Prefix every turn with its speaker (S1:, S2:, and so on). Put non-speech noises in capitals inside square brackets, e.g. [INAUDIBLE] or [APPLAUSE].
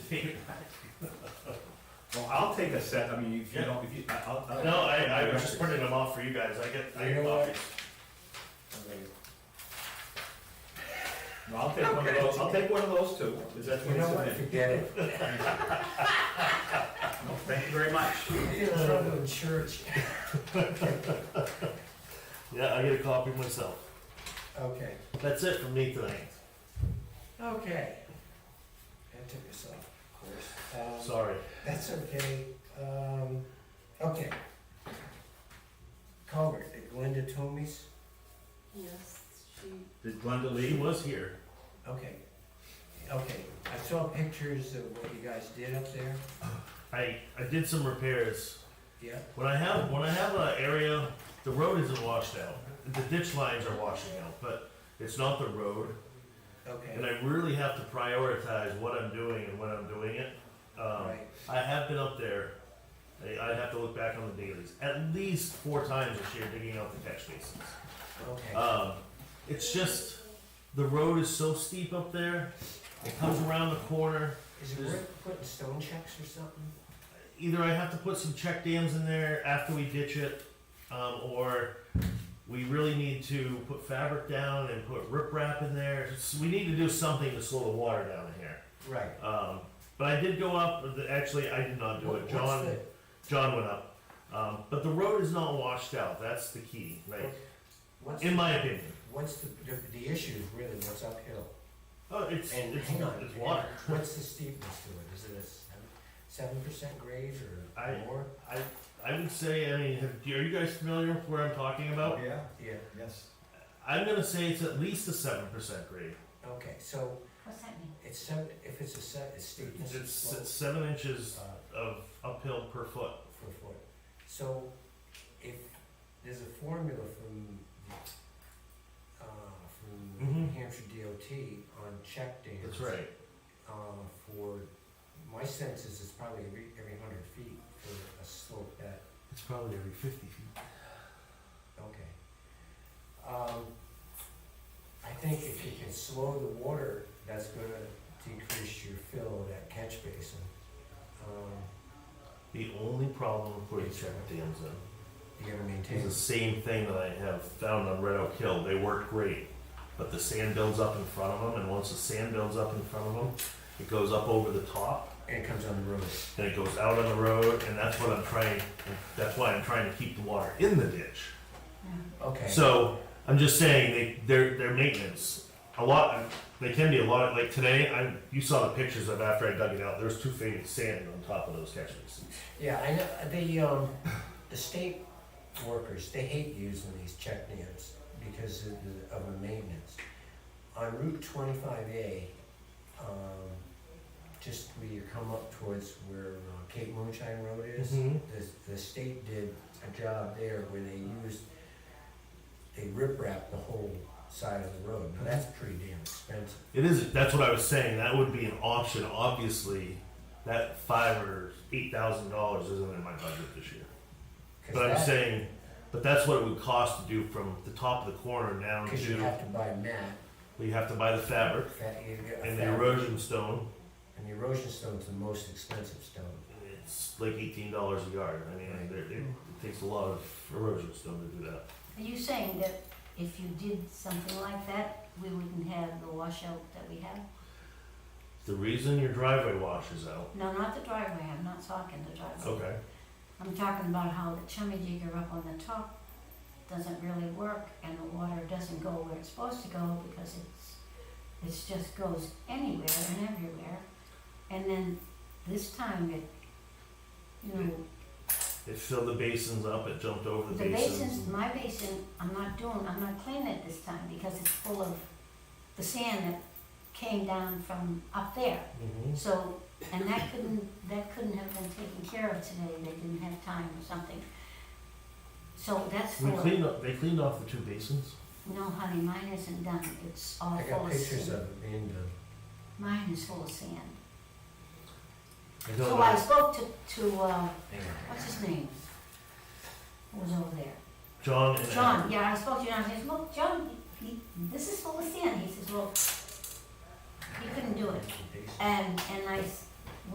S1: [LAUGHS] I'll take a set, I mean, if you don't, if you, I- I'll. I'll-
S2: No, I, I was just printing them off for you guys, I get, I
S3: You
S2: get
S3: know what?
S2: copies.
S1: No, I'll take one of those, I'll take one of those too, is that
S3: You
S1: what you
S3: know what,
S1: said?
S3: forget [LAUGHS] it.
S1: No, Thank you very much.
S3: You're in trouble in church.
S2: Yeah, I get a copy myself.
S3: Okay,
S2: That's it from me tonight,
S3: okay. That took us off, of course. Um,
S2: sorry.
S3: That's okay, um, okay. Culvert at Glenda Toomey's,
S4: Yes, she,
S1: Did Glenda
S2: He
S1: leave?
S2: was here.
S3: okay, okay, I saw pictures of what you guys did up there,
S2: I, I did some repairs.
S3: yeah,
S2: When I have, when I have an area, the road isn't washed out. The ditch lines are washing out, but it's not the road. And
S3: okay,
S2: I really have to prioritize what I'm doing and when I'm doing it. Um,
S3: right,
S2: I have been up there, I, I have to look back on the dailies, at least four times this year digging out the catch basins.
S3: okay,
S2: Um, it's just, the road is so steep up there, it comes around the corner.
S3: is it
S2: there's-
S3: worth putting stone checks or something?
S2: Either I have to put some check dams in there after we ditch it, um, or we really need to put fabric down and put riprap in there. So we need to do something to slow the water down in here.
S3: Right.
S2: Um, but I did go up, the- actually, I did not do
S3: What-
S2: it,
S3: what's
S2: John,
S3: the-
S2: John went up. Um, but the road is not washed out, that's the key, like,
S3: What's,
S2: in my opinion.
S3: what's the, the, the issue is really what's uphill,
S2: Oh, it's,
S3: and
S2: it's,
S3: hang on.
S2: it's [LAUGHS] water.
S3: What's the steepness to it, is it a seven, seven percent grade or
S2: I-
S3: more?
S2: I, I would say, I mean, have, are you guys familiar with where I'm talking about?
S1: Yeah,
S3: Yeah,
S1: yes.
S2: I'm gonna say it's at least a seven percent grade.
S3: okay, so
S4: what's that mean?
S3: It's seven, if it's a set, it's steepness is
S2: It's,
S3: slope
S2: it's seven inches
S3: uh,
S2: of uphill per foot.
S3: per foot. So if, there's a formula from, uh, from New
S2: Mhm.
S3: Hampshire DOT on check dams.
S2: That's right.
S3: Uh, for, my sense is it's probably every, every hundred feet for a slope that,
S2: It's probably every fifty feet.
S3: okay. Um, I think if you can slow the water, that's gonna decrease your fill of that catch basin. Um,
S2: The only problem with putting check dams in
S3: you gotta
S2: is
S3: maintain.
S2: the same thing that I have found on Red Oak Hill. They work great, but the sand builds up in front of them, and once the sand builds up in front of them, it goes up over the top,
S3: And it comes on the road.
S2: and it goes out on the road, and that's what I'm trying. That's why I'm trying to keep the water in the ditch.
S3: Okay.
S2: So I'm just saying they their their maintenance a lot. They can be a lot. Like today, I you saw the pictures of after I dug it out. There's two feet of sand on top of those catch basins.
S3: yeah, I know the um, the state workers they hate using these check dams because of the, of the maintenance. On Route 25A, um, just where you come up towards where uh, Cape Moonshine Road is,
S2: Mhm.
S3: the, the state did a job there where they used they rip wrap the whole side of the road. Now that's pretty damn expensive.
S2: It is. That's what I was saying. That would be an option. Obviously, that five or eight thousand dollars isn't in my budget this year.
S3: 'Cause
S2: But I'm
S3: that-
S2: saying, but that's what it would cost to do from the top of the corner down
S3: Cause you
S2: to.
S3: have to buy mat,
S2: We have to buy the fabric
S3: fat, you get a
S2: and the
S3: fabric.
S2: erosion stone.
S3: And the erosion stone's the most expensive stone.
S2: It's like eighteen dollars a yard. I mean, it, it, it takes a lot of erosion stone to do that.
S4: Are you saying that if you did something like that, we wouldn't have the washout that we have?
S2: The reason your driveway washes out.
S4: No, not the driveway, I'm not talking the driveway.
S2: Okay.
S4: I'm talking about how the chummy jigger up on the top doesn't really work and the water doesn't go where it's supposed to go because it's, it's just goes anywhere and everywhere. And then this time it, you know,
S2: It filled the basins up, it jumped over the,
S4: The
S2: basins.
S4: basins, my basin, I'm not doing, I'm not cleaning it this time because it's full of the sand that came down from up there.
S2: Mhm.
S4: So, and that couldn't, that couldn't have been taken care of today, they didn't have time or something. So that's
S2: We
S4: full of,
S2: cleaned up, they cleaned off the two basins.
S4: no honey, mine isn't done, it's all
S3: I
S4: full
S3: got
S4: of
S3: pictures of
S4: sand.
S3: it being done.
S4: Mine is full of sand.
S2: I don't
S4: So
S2: know.
S4: I spoke to, to, uh, what's his name? Who was over there?
S2: John and
S4: John, yeah, I spoke to John, he says, look, John, he, this is full of sand, he says, well, he couldn't do it, and, and I, s-